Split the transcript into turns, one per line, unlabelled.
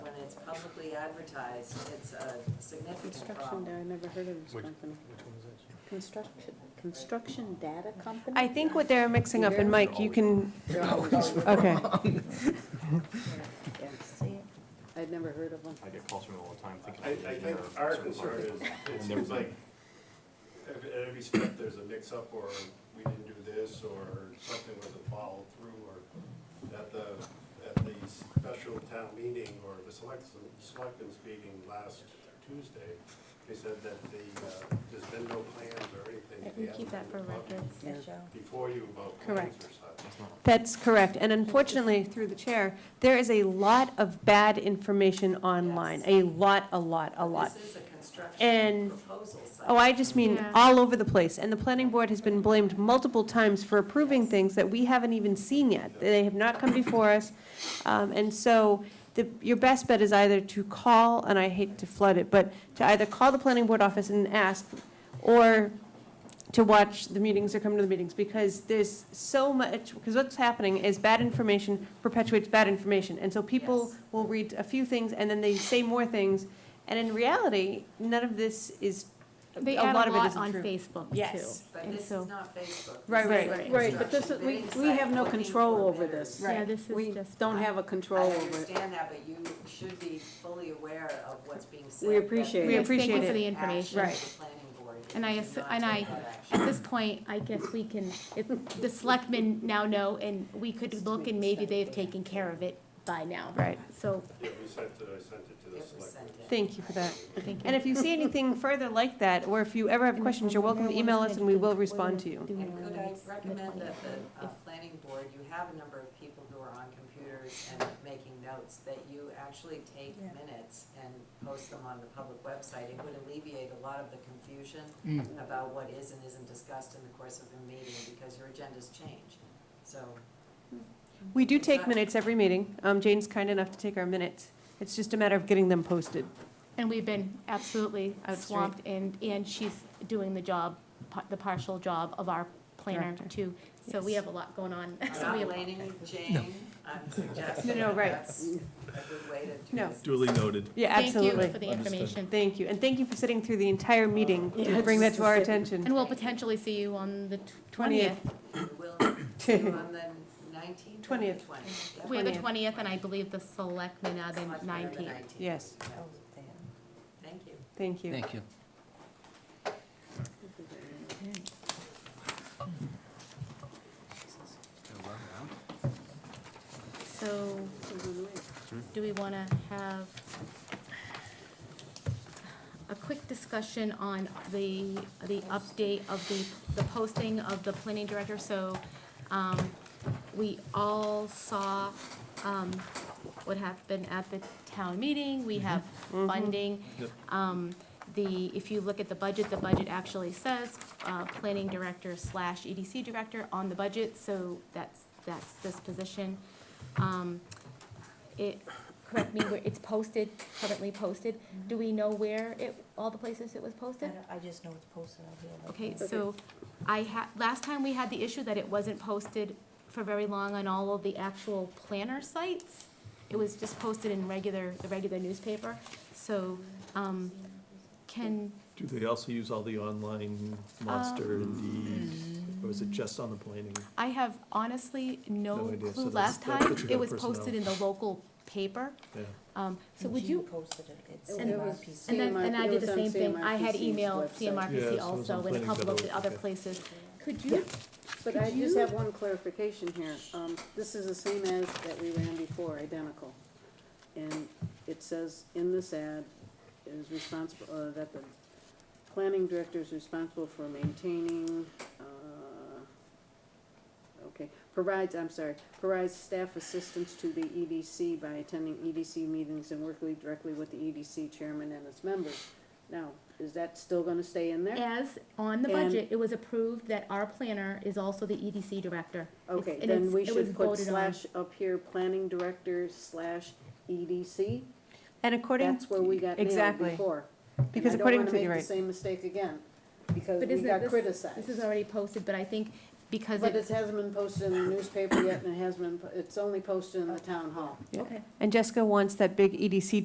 already advertised, it's a significant
Construction,
problem.
I never heard of this
Which-
company.
Which one is this?
Construction, construction data company?
I think what they're mixing up, and Mike, you can,
They're always wrong.
okay.
I'd never heard of them.
I get calls from them all the time thinking.
I,
I'm an
I think
engineer or
our
some
concern
sort
is,
of-
it seems like every, at every step there's a mix-up, or we didn't do this, or something wasn't followed through, or at the, at the special town meeting, or the select, selectmen's meeting last Tuesday, they said that the, uh, there's been no plans or anything.
I can keep that for records,
Yeah.
Michelle.
Before you about plans or such.
That's not,
That's correct. And unfortunately, through the chair, there is a lot of bad information online. A lot, a lot, a lot.
This is a construction
And-
proposal site.
Oh, I just mean
Yeah.
all over the place. And the planning board has been blamed multiple times for approving things that we haven't even seen yet. They have not come before us. Um, And so the, your best bet is either to call, and I hate to flood it, but to either call the planning board office and ask, or to watch the meetings or come to the meetings, because there's so much, because what's happening is bad information perpetuates bad information. And so people
Yes.
will read a few things, and then they say more things. And in reality, none of this is, a
They add
lot of it isn't
on
true.
Facebook, too.
Yes.
But
And
this
so-
is not Facebook.
Right,
This is
right.
a
Right, but this is-
construction
we-
bidding
we
site
have no
looking
control
for
over
bidders.
this.
Yeah, this
We
is just.
don't have a
I
control over it.
understand that, but you should be fully aware of what's being said.
We appreciate
We
Yes, Thank
appreciate
you for
it.
the
Action
information.
of
Right.
the planning board if
And I
you do
assu-
not
and
take
I-
that action.
At this point, I guess we can, if the selectmen now know, and we could look, and maybe they have taken care of it by now.
right,
So,
Yeah, we sent it, I sent it to the
It was
selectmen.
sent in.
thank you for that.
thank you.
And if you see anything further like that, or if you ever have questions, you're welcome to email us and we will respond to you.
And could I recommend that the uh, planning board, you have a number of people who are on computers and making notes, that you actually take minutes and post them on the public website? It would alleviate a lot of the confusion about what is and isn't discussed in the course of a meeting, because your agendas change. So,
We do take minutes every meeting. Um, Jane's kind enough to take our minutes. It's just a matter of getting them posted.
uh,
And we've been absolutely
Out straight.
swamped, and, and she's doing the job, pa- the partial job of our planner,
Director.
too. So we
Yes.
have a lot going on.
I'm
So we
not
have-
blaming Jane, I'm suggesting
No, no,
that
right.
that's a good way to do
No.
this.
Duly noted.
Yeah,
Thank you
absolutely.
for the
Understood.
information.
Thank you. And thank you for sitting through the entire meeting
Yeah,
to bring that
just
to our
to sit-
And
attention.
we'll potentially see you on the twentieth.
20th.
We'll see you on the nineteenth or the
Twentieth.
twentieth.
We have the
20th.
twentieth, and I believe the selectmen are the nineteenth.
Yes,
Oh,
Thank you.
thank you.
Thank you.
So, do we wanna have a quick discussion on the, the update of the, the posting of the planning director? So, um, we all saw, um, what happened at the town meeting, we have funding. Um, the, if you look at the budget, the budget actually says, uh, planning director slash EDC director on the budget, so that's, that's this position. Um, it, correct me, where it's posted, currently posted, do we know where it, all the places it was
I
posted?
don't- I just know it's posted out here. like-
Okay, so I had, last time we had the issue that it wasn't posted for very long on all of the actual planner sites. It was just posted in regular, the regular newspaper, so, um, can,
Do they also use all the online monster and the, or is it just on the planning?
um, I have honestly
No
no
idea, so
clue,
that's-
last
that's
time
what you
it
got
was
personnel.
posted in the local paper,
Yeah.
um, so would
Jean
you,
posted it, it's
It
in
was-
RPC.
And then,
CMR
and
it
I did
was
the
on
same thing, I had
CMRPC's
emailed
website.
Yeah, so
CMRPC
it was on
also and a
planning,
couple
but
of
it
the
was-
other
okay.
places. Could
Yeah.
you,
But I just have one clarification here. Um, this is the same as that we ran before, identical. And it says in this ad is responsible, uh, that the planning director is responsible for maintaining, uh, okay, provides, I'm sorry, provides staff assistance to the EDC by attending EDC meetings and working directly with the EDC chairman and its members. Now, is that still gonna stay in there?
as on the
And-
budget, it was approved that our planner is also the EDC director. It's-
Okay,
and
then
it's-
we
it was
should put
voted on.
slash up here, planning director slash EDC.
And according,
That's where we got nailed
Exactly.
before.
Because according to-
And I don't wanna make
you're right.
the same mistake again, because
But
we
isn't it-
got
this-
criticized.
This is already posted, but I think because
But it
it's,
hasn't been posted in the newspaper yet, and it hasn't been, po- it's only posted in the town hall.
and Jessica wants that big E EDC